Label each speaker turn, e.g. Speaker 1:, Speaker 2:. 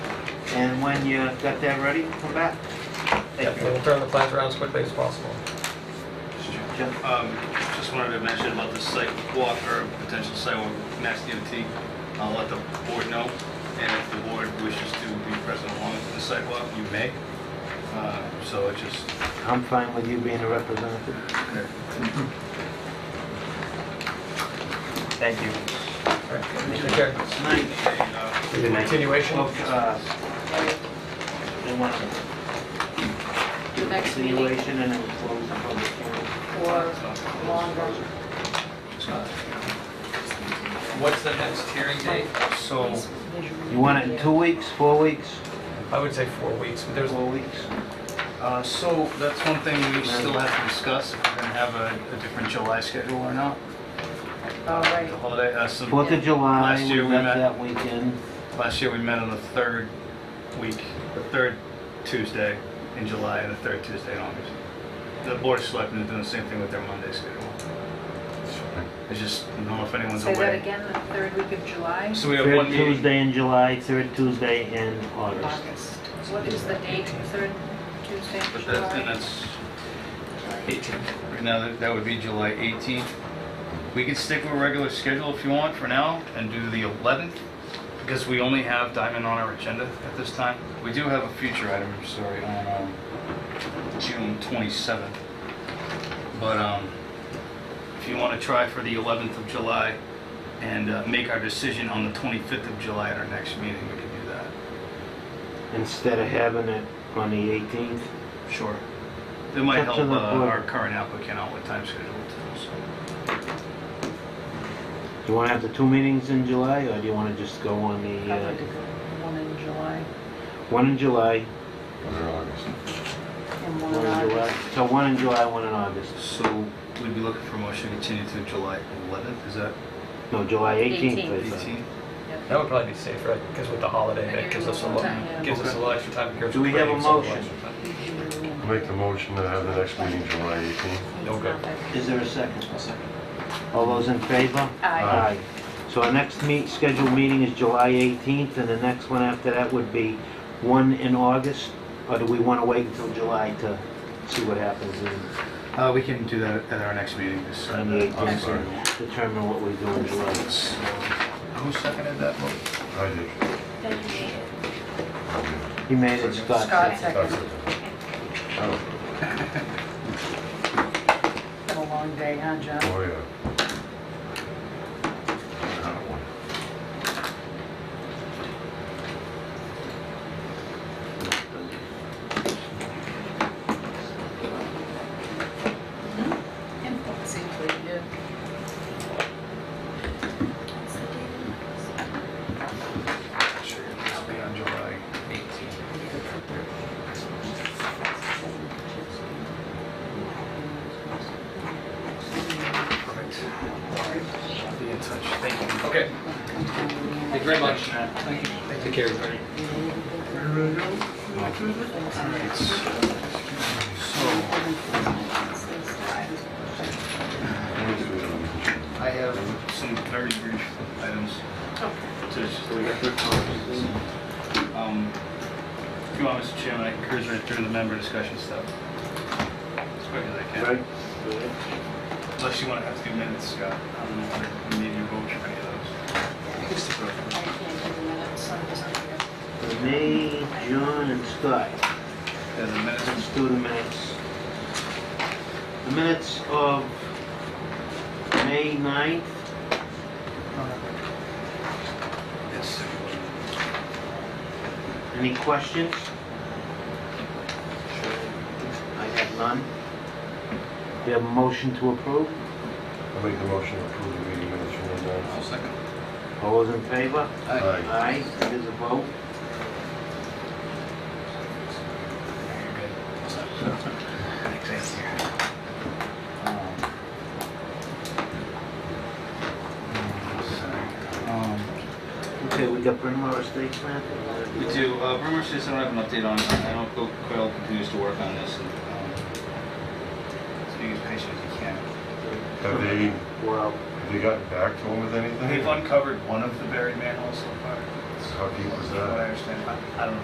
Speaker 1: And when you got that ready, come back.
Speaker 2: Yeah,
Speaker 1: Thank you.
Speaker 2: we'll turn the plans around as quickly as possible.
Speaker 1: Jim,
Speaker 3: Um, Just wanted to mention about this site walk or potential site walk, with Mass DOT. I'll let the board know, and if the board wishes to be present along with the sidewalk, you may. Uh, So it just,
Speaker 1: I'm fine with you being a representative. Thank you.
Speaker 2: All right, Take care.
Speaker 1: Night.
Speaker 3: uh,
Speaker 2: The Continuation.
Speaker 1: Well, uh, They want to do a
Speaker 4: Next meeting.
Speaker 1: continuation and then close the public hearing.
Speaker 4: or longer.
Speaker 2: What's the next hearing date?
Speaker 3: so,
Speaker 1: You want it in two weeks, four weeks,
Speaker 2: I would say four weeks, but there's,
Speaker 1: four weeks?
Speaker 3: uh, so that's one thing we still have to discuss, if we're going to have a a different July schedule or not.
Speaker 4: All right.
Speaker 3: The holiday, uh, so
Speaker 1: Fourth of July,
Speaker 3: Last
Speaker 1: we
Speaker 3: year we
Speaker 1: left
Speaker 3: met-
Speaker 1: that weekend.
Speaker 3: Last year, we met on the third week, the third Tuesday in July and the third Tuesday in August. The Board of Selectmen is doing the same thing with their Monday schedule. It's just, I don't know if anyone's
Speaker 4: Say that
Speaker 3: away.
Speaker 4: again, the third week of July,
Speaker 3: So we have
Speaker 1: Third
Speaker 3: one meeting.
Speaker 1: Tuesday in July, third Tuesday in August.
Speaker 4: August. What is the date, the third Tuesday of
Speaker 3: But that, and
Speaker 4: July?
Speaker 3: that's 18th. Right now, that- that would be July 18th. We could stick with a regular schedule if you want for now and do the 11th, because we only have Diamond on our agenda at this time. We do have a future item, I'm sorry, on um, June 27th. But um, if you want to try for the 11th of July and uh, make our decision on the 25th of July at our next meeting, we could do that.
Speaker 1: Instead of having it on the 18th.
Speaker 3: Sure. It might
Speaker 1: Up to
Speaker 3: help uh,
Speaker 1: the board.
Speaker 3: our current applicant out with time schedule too, so.
Speaker 1: Do you want to have the two meetings in July, or do you want to just go on the,
Speaker 4: I'd like to
Speaker 1: uh,
Speaker 4: go one in July
Speaker 1: one in July,
Speaker 5: Or August.
Speaker 4: and one
Speaker 1: one
Speaker 4: in
Speaker 1: in July?
Speaker 4: August.
Speaker 1: So one in July, one in August.
Speaker 3: So we'd be looking for a motion to continue to July 11th, is that
Speaker 1: No, July 18th, I thought.
Speaker 3: 18?
Speaker 2: that would probably be safer, because with the holiday, it gives us a little, gives us a little extra time. gives
Speaker 1: Do we have a
Speaker 2: us little
Speaker 1: motion?
Speaker 2: extra time.
Speaker 5: I'll Make the motion to have the next meeting July 18th.
Speaker 2: No good.
Speaker 1: Is there a second? All those in favor?
Speaker 4: Aye.
Speaker 1: Aye. So our next meet, scheduled meeting is July 18th, and the next one after that would be one in August? Or do we want to wait until July to see what happens and
Speaker 3: Uh, we can do that at our next meeting, this
Speaker 1: On
Speaker 3: Sunday.
Speaker 1: the 18th. determine what we do in July?
Speaker 3: Who seconded that vote?
Speaker 5: I did.
Speaker 4: Thank you.
Speaker 1: He made it, Scott.
Speaker 4: Scott
Speaker 5: That's
Speaker 4: second.
Speaker 5: it. Oh,
Speaker 4: Been a long day, huh, John?
Speaker 5: oh, yeah. That one.
Speaker 4: Seems like you did.
Speaker 3: Sure, it'll be on July 18th. Perfect. Be in touch, thank you.
Speaker 2: Okay. Thank you very much. Thank you. Take care, everybody.
Speaker 3: So, I have some very brief items. to just- Um, If you want, Mr. Chairman, I can cruise right through the member discussion stuff. As quick as I can. Unless you want to have to do minutes, Scott. I don't know if we need to vote for any of
Speaker 1: Me,
Speaker 3: those.
Speaker 1: John, and Scott.
Speaker 3: There's a minutes,
Speaker 1: Let's do the minutes. The minutes of May 9th,
Speaker 3: yes.
Speaker 1: any questions? I have none. We have a motion to approve.
Speaker 5: I'll make the motion to approve the meeting minutes from the ninth.
Speaker 3: second.
Speaker 1: All those in favor?
Speaker 5: Aye.
Speaker 1: Aye, it is a vote.
Speaker 3: Um, Um,
Speaker 1: Okay, we got Bryn Mawr Estates plan?
Speaker 3: We do, uh, Bremer says I don't have an update on, it. I know Bill Quayle continues to work on this and, um, he's being as patient as he can.
Speaker 5: Have they, have
Speaker 1: Well,
Speaker 5: they gotten back to him with anything?
Speaker 3: They've uncovered one of the buried manholes so far.
Speaker 5: How deep was
Speaker 3: From what I
Speaker 5: that?
Speaker 3: understand, I I don't know